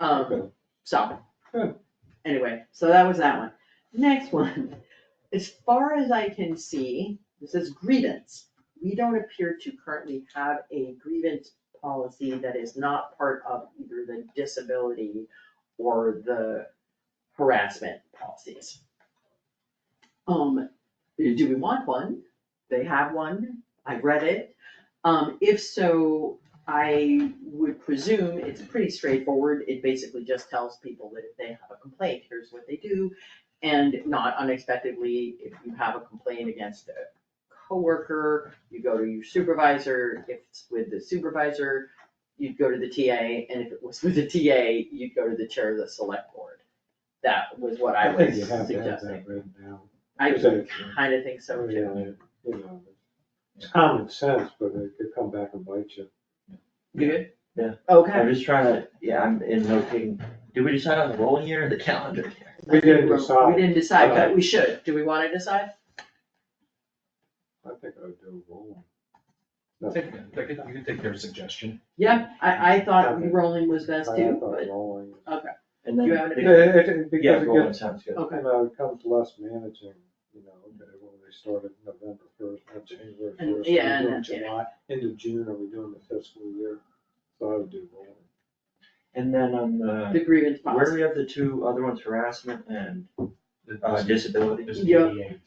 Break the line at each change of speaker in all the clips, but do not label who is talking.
Um,
Okay.
so.
Good.
Anyway, so that was that one. Next one, as far as I can see, this is grievance. We don't appear to currently have a grievance policy that is not part of either the disability or the harassment policies. Um, do we want one? They have one, I read it. Um, if so, I would presume it's pretty straightforward, it basically just tells people that if they have a complaint, here's what they do. And not unexpectedly, if you have a complaint against a coworker, you go to your supervisor, if it's with the supervisor, you'd go to the TA, and if it was with the TA, you'd go to the chair of the select board. That was what I was
think you have to have
suggesting,
that written down.
I
Because
kinda think so too.
Oh, Yeah, you know, It's common sense, but it could come back and bite you.
You good?
Yeah.
Okay,
I'm just trying to, yeah, I'm in noting, did we decide on the rolling year or the calendar year?
We didn't
we
decide,
didn't decide, but
Okay.
we should, do we wanna decide?
I think I would do a roll.
Take- take it- You can take their suggestion.
Yeah, I, I thought
Okay.
rolling was best too, but,
Rolling.
And
Do
then
you have
the-
any-
Yeah, it- it-
Yeah,
because it
rolling
gets,
sounds good.
okay,
you know, it becomes less managing, you know, okay, well, they started November first, or January
And-
first,
yeah,
we're doing
and-
July, end of June, are we doing the fiscal year? So I would do rolling.
And then on the,
the grievance
where do
policy.
we have the two other ones, harassment and uh, disability?
There's
Yeah.
DDA.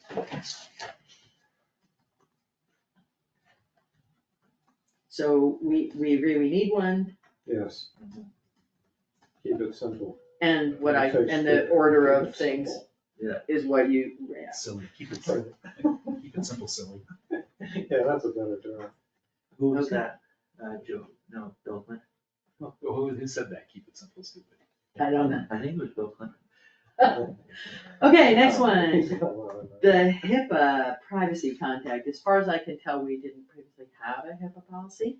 So we, we agree we need one,
Yes.
Mm-hmm.
Mhm.
Keep it simple.
and what I,
Keep it
and the
simple.
order
Keep
of
it
things
simple.
is what you, yeah.
Silly, keep it
Right.
simple, keep it simple, silly.
Yeah, that's a better term.
Who was
Okay.
that? Uh, Joe, no, Bill Clinton.
Who, who said that, keep it simple, stupid?
I don't know.
I think it was Bill Clinton.
Okay, next
Oh,
one,
He's got a lot of that.
the HIPAA privacy contact, as far as I can tell, we didn't previously have a HIPAA policy.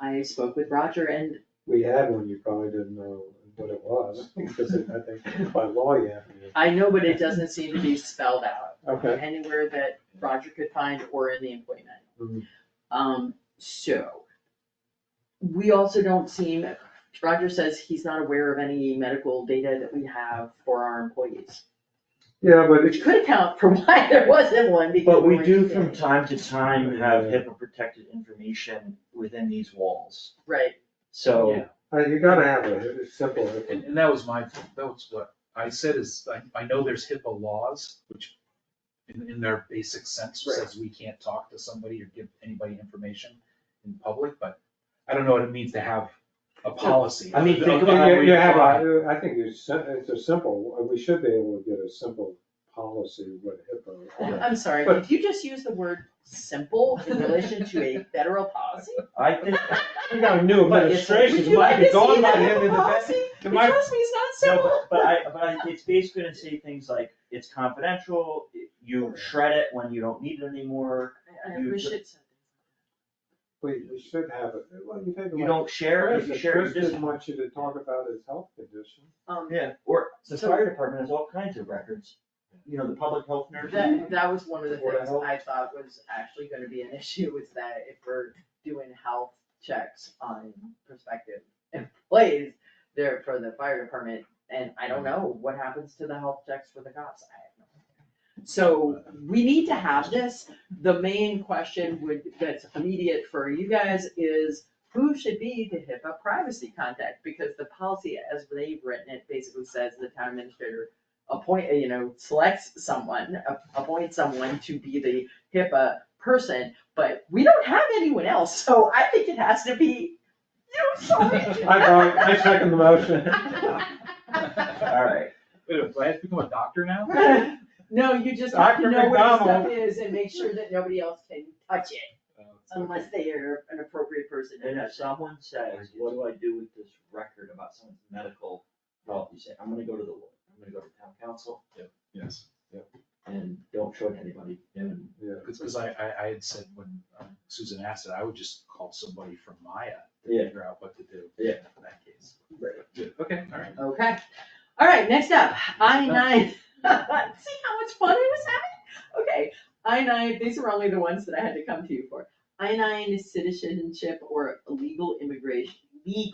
I spoke with Roger and
We had one, you probably didn't know what it was, because it- I think by law you have to.
I know, but it doesn't seem to be spelled out.
Okay.
anywhere that Roger could find or in the employee manual.
Mm-hmm.
Mhm.
Um, so, we also don't seem, Roger says he's not aware of any medical data that we have for our employees,
Yeah, but
which could account for why there wasn't one because.
But we
we're-
do from time to time have
Yeah.
HIPAA protected information within these walls,
Right,
so.
Yeah.
uh, you gotta have it, it's simple. it's-
And, and that was my, that was what I said is, I, I know there's HIPAA laws, which in, in their basic sense
Right.
says we can't talk to somebody or give anybody information in public, but I don't know what it means to have a policy.
I mean,
Of-
think
of
about
how
how
You
we
you have,
apply.
a- I think it's, sim- it's a simple, uh, we should be able to get a simple policy with HIPAA.
I'm sorry,
But-
did you just use the word simple in relation to a federal policy?
I think,
We got a new
But it's-
Would
administration,
you
might
like
be
to see
going by
that
him in the back.
policy?
to my-
Trust me, it's not
no,
simple.
but, but I, but I, it's basically gonna say things like, it's confidential, you shred it when you don't need it anymore,
I- I
you
wish
ju-
it said.
We, we should have it, well, you take.
you don't share, it, if you share
Chris
it, just.
didn't want you to talk about his health condition.
Um,
Yeah, or the
So-
fire department has all kinds of records, you know, the public health nurse.
That, that was one of the
Board of
things
Health.
I thought was actually gonna be an issue, was that if we're doing health checks on prospective employees, there for the fire department, and I don't know what happens to the health checks for the cops, I have no idea. So, we need to have this, the main question would, that's immediate for you guys is, who should be the HIPAA privacy contact? Because the policy, as they've written it, basically says the town administrator appoint, you know, selects someone, a- appoint someone to be the HIPAA person, but we don't have anyone else, so I think it has to be, you
I, vote- I second the motion.
Alright,
Wait, a minute, do I have to become a doctor now? Uh,
No, you just have to
Dr.
know where the stuff
McDonald.
is and make sure that nobody else can touch it
Uh,
unless they are an appropriate person to
and
touch
if
it.
someone says, what do I do with this record about someone's medical health, you say, I'm gonna go to the, lawyer. I'm gonna go to town council,
Yes,
and don't show it to anybody, and
Yeah.
because, I, I, I had said when um, Susan asked it, I would just call somebody from Maya to
Yeah.
figure out what to do.
Yeah.
In that case.
Right.
Good, okay, all right.
Okay, all right, next up, I nine, see how much fun I was having? Okay, I nine, these are only the ones that I had to come to you for. I nine is citizenship or legal immigration, legal